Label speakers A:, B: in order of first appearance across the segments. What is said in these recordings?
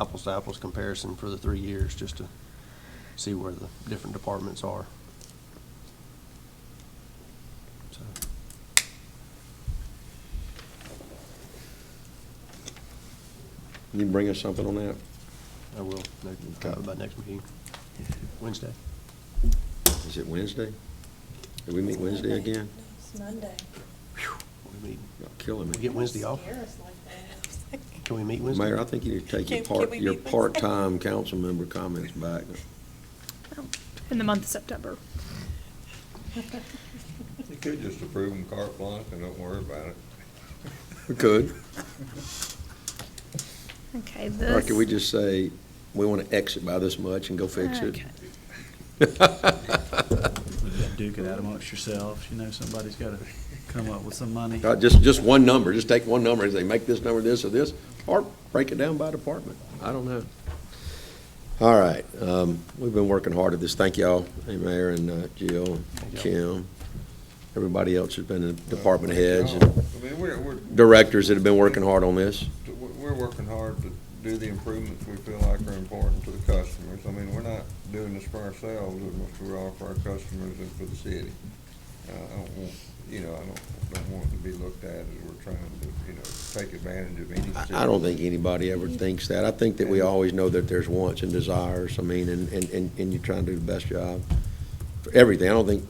A: apples to apples comparison for the three years, just to see where the different departments are. So,
B: Can you bring us something on that?
A: I will, no-
B: Okay.
A: by next meeting, Wednesday.
B: Is it Wednesday? Do we meet Wednesday again?
C: It's Monday.
A: Phew, We meet,
B: Y'all killing
A: we get
B: me.
A: Wednesday off?
C: Scare us like
A: Can we meet Wednesday?
B: Mayor, I think you need to take your
C: Can- can
B: part,
C: we
B: your
C: meet Wednesday?
B: part-time council member comments back.
D: in the month of September.
C: that.
E: You could just approve them carte blanche and don't worry about it.
B: We could.
D: Okay, this.
B: Or could we just say, we want to exit by this much and go fix it?
D: Okay.
F: You gotta duke it out amongst yourselves, you know, somebody's gotta come up with some money.
B: Uh, Just, just one number, just take one number, as they make this number this or this, or break it down by department, I don't know. All right, um, we've been working hard at this, thank y'all, hey, Mayor and uh, Jill, and
A: Thank
B: Kim, everybody else has been, the department heads
E: I
B: and
E: mean, we're, we're,
B: directors that have been working hard on this.
E: we're- we're working hard to do the improvements we feel like are important to the customers. I mean, we're not doing this for ourselves, as much as we are for our customers and for the city. Uh, I don't want, you know, I don't, don't want it to be looked at as we're trying to, you know, take advantage of any city.
B: I I don't think anybody ever thinks that. I think that we always know that there's wants and desires, I mean, and, and, and and you're trying to do the best job for everything. I don't think,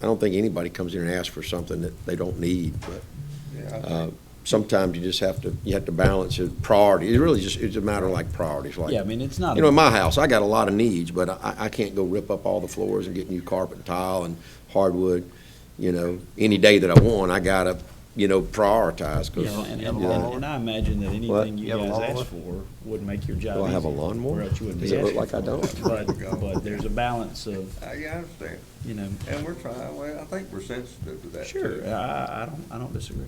B: I don't think anybody comes in and asks for something that they don't need, but,
E: Yeah, I
B: uh,
E: think-
B: sometimes you just have to, you have to balance it, priority. It really just, it's a matter of like priorities, like.
F: Yeah, I mean, it's not,
B: You know, in
F: a-
B: my house, I got a lot of needs, but I, I can't go rip up all the floors and get new carpet and tile and hardwood, you know, any day that I want, I gotta, you know, prioritize,
F: you
B: because.
F: know, and,
A: You have a
F: and
A: lawnmower?
F: and I imagine that
B: What?
F: anything you
A: You have a
F: guys
A: lawnmower?
F: ask for would make your job
B: Do
F: easier.
B: I have a lawnmower?
F: Or else you wouldn't
B: Does
F: be
B: it look
F: asking
B: like I
F: for it. But, but there's a balance of,
E: I, yeah, I understand.
F: you know,
E: And we're trying, well, I think we're sensitive to that.
F: sure,
E: too.
F: I- I, I don't, I don't disagree.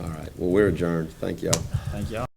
B: All right, well, we're adjourned, thank y'all.
F: Thank y'all.